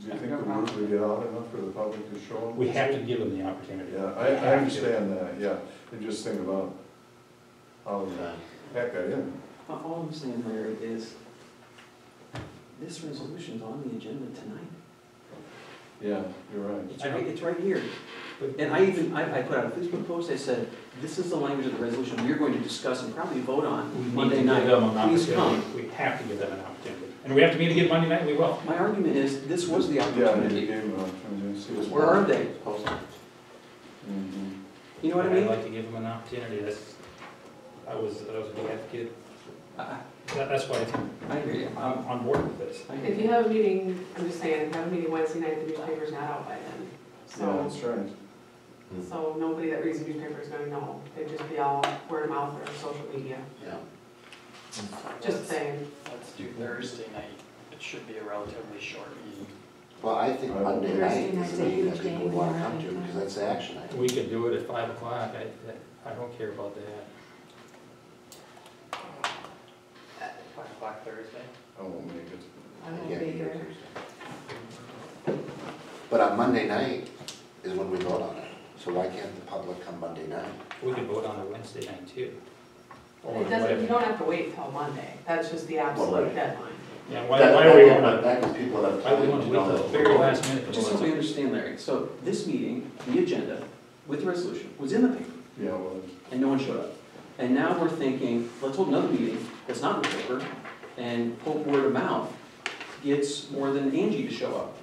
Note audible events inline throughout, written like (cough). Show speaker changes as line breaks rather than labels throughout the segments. Do you think the word would get out enough for the public to show them?
We have to give them the opportunity.
Yeah, I, I understand that, yeah, and just think about how the heck I am.
Uh, All I'm saying, Larry, is this resolution's on the agenda tonight.
Yeah, you're right.
It's right, it's right here. And I even, I, I put out a Facebook post, I said, this is the language of the resolution we're going to discuss and probably vote
We
on
need to
Monday
give
night.
them an
Please
opportunity.
come.
We have to give them an opportunity. And we have to meet again Monday night, we will.
My argument is, this was the
Yeah, you gave
opportunity.
them an opportunity, see what's.
Where are they?
Mhm.
You know what I
I'd
mean?
like to give them an opportunity. That's, I was, I was a big advocate.
I,
That- That's why I think
I hear you.
I'm
Um,
on board with this.
I hear
If
you.
you have a meeting, I'm just saying, if you have a meeting Wednesday night, the newspaper's not out by then.
Yeah,
So,
that's right.
so nobody that reads the newspaper is gonna know. It'd just be all word of mouth or social media.
Yeah.
Just saying,
Let's do Thursday night. It should be a relatively short meeting.
Well, I think Monday
Thursday
night is
night's
the
a
meeting
huge
that people
game
want to
in
come to,
Arlington.
because that's the action item.
We could do it at five o'clock. I, that- I don't care about that.
Five o'clock Thursday.
I won't make it.
I won't
Yeah,
be
you're
here.
Tuesday. But on Monday night is when we vote on it, so why can't the public come Monday night?
We could vote on a Wednesday night too. Or
it doesn't, you
whatever.
don't have to wait till Monday. That's just the
Well,
absolute
right.
deadline.
Yeah, why,
That-
why are we
that-
on,
That gives people enough
why
time
we
to
want to wait till
know.
the
(laughs)
very last minute? to
Just
vote
so
on
we
something?
understand, Larry, so this meeting, the agenda, with the resolution, was in the paper,
Yeah, well,
and no one showed up. And now we're thinking, let's hold another meeting that's not in the paper, and hope word of mouth gets more than Angie to show up.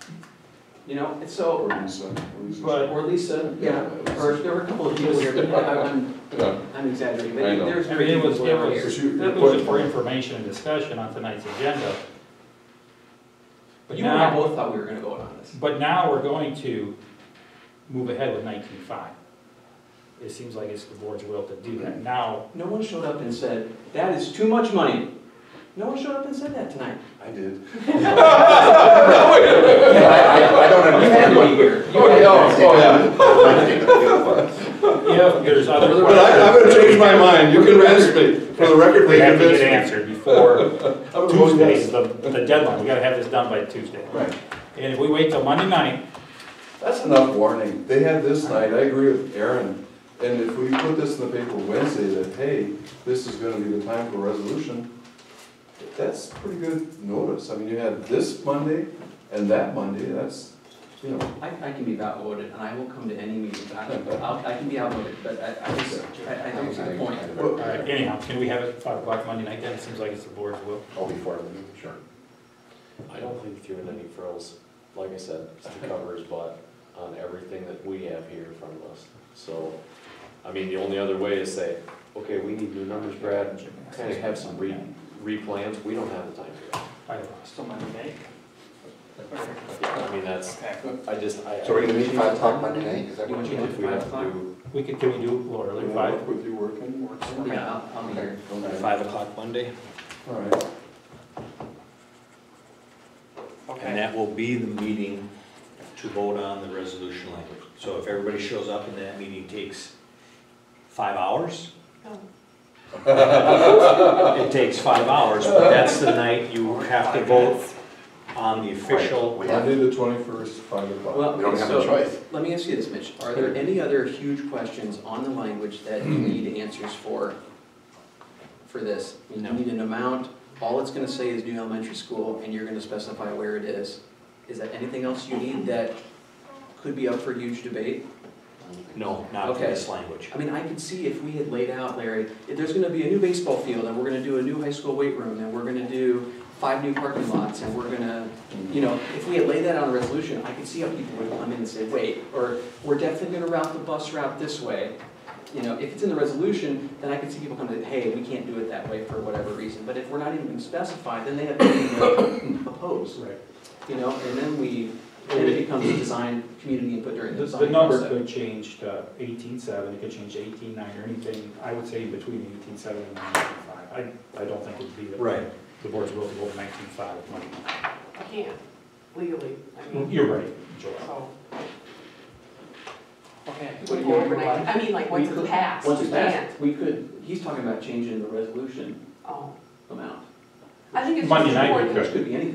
You know, and so,
or Lisa, or Lisa's-
But-
or Lisa, yeah, or there were a couple of people here, but I- I'm,
Yeah,
I'm exaggerating,
I
but
know.
there's
I mean,
very
it was,
people
it
around here.
was,
But you-
it was just for information and discussion on tonight's agenda. But
You and I
now,
both thought we were gonna vote on this.
but now we're going to move ahead with nineteen-five. It seems like it's the board's will to do that. Now,
No one showed up and said, that is too much money. No one showed up and said
(laughs)
that tonight.
I did.
I, I, I don't
You had
understand
to
what.
be here.
(laughs) Oh, yeah, oh, yeah.
yeah.
if there's other
But I, I'm
questions,
gonna change my mind, you convinced me, for the record,
we
they
have to get
convinced me. (laughs)
answered before
I'm gonna vote
Tuesday
yes.
is the, the deadline. We gotta have this done by Tuesday.
Right,
And if we wait till Monday night,
that's enough warning, they had this night, I agree with Aaron, and if we put this in the paper Wednesday that, hey, this is gonna be the time for resolution, that's pretty good notice, I mean, you had this Monday and that Monday, that's, you know,
I, I can be outvoted, and I will come to any meeting, but I, I'll- I can be outvoted, but I, I just, I, I don't see the point.
Well,
all right, anyhow, can we have it at five o'clock Monday night then? It seems like it's the board's will.
Oh, before the meeting, sure.
I don't think throwing any frills, like I said, it's the cover's butt on everything that we have here in front of us. So, I mean, the only other way is say, okay, we need new numbers, Brad, kind of have some re, replans, we don't have the time for that.
I lost.
Still Monday night.
Yeah, I mean, that's,
Okay.
I just, I.
So we're gonna meet five o'clock Monday night, is that
You
what
want
you
you to do
If we
five
have to
o'clock?
do,
We could, can we do a little earlier, five?
With you working, working.
Yeah, I'll, I'll be here.
Okay,
Five o'clock Monday,
all right,
okay.
And that will be the meeting to vote on the resolution language. So if everybody shows up and that meeting takes five hours,
Oh,
it takes five hours, but that's the night you have to vote on the official.
We have,
Monday the twenty-first, five o'clock.
Well,
we don't
okay,
have a
so,
choice.
let me ask you this, Mitch, are there any other huge questions on the language that you need answers for, for this? You
No.
need an amount, all it's gonna say is new elementary school, and you're gonna specify where it is. Is there anything else you need that could be up for huge debate?
No, not for this language.
I mean, I could see if we had laid out, Larry, if there's gonna be a new baseball field, and we're gonna do a new high school weight room, and we're gonna do five new parking lots, and we're gonna, you know, if we had laid that on a resolution, I could see how people would come in and say, wait, or we're definitely gonna route the bus route this way. You know, if it's in the resolution, then I could see people come to, hey, we can't do it that way for whatever reason, but if we're not even gonna specify, then they have nothing to oppose,
Right.
you know, and then we, then it becomes a design, community input during the
The,
design
the number
process.
could change to eighteen-seven, it could change to eighteen-nine or anything, I would say between eighteen-seven and nineteen-five. I, I don't think it'd be the.
Right.
The board's will to go nineteen-five with money.
I can't legally, I mean,
You're right, Joel.
so.
Okay.
What do you want to
overnight.
provide?
I mean, like, once
We could-
it's passed,
Once
you
it's passed,
can't.
we could, he's talking about changing the resolution
Oh.
amount,
I think it's
Monday
just
night we
important.
could.
which could be anything.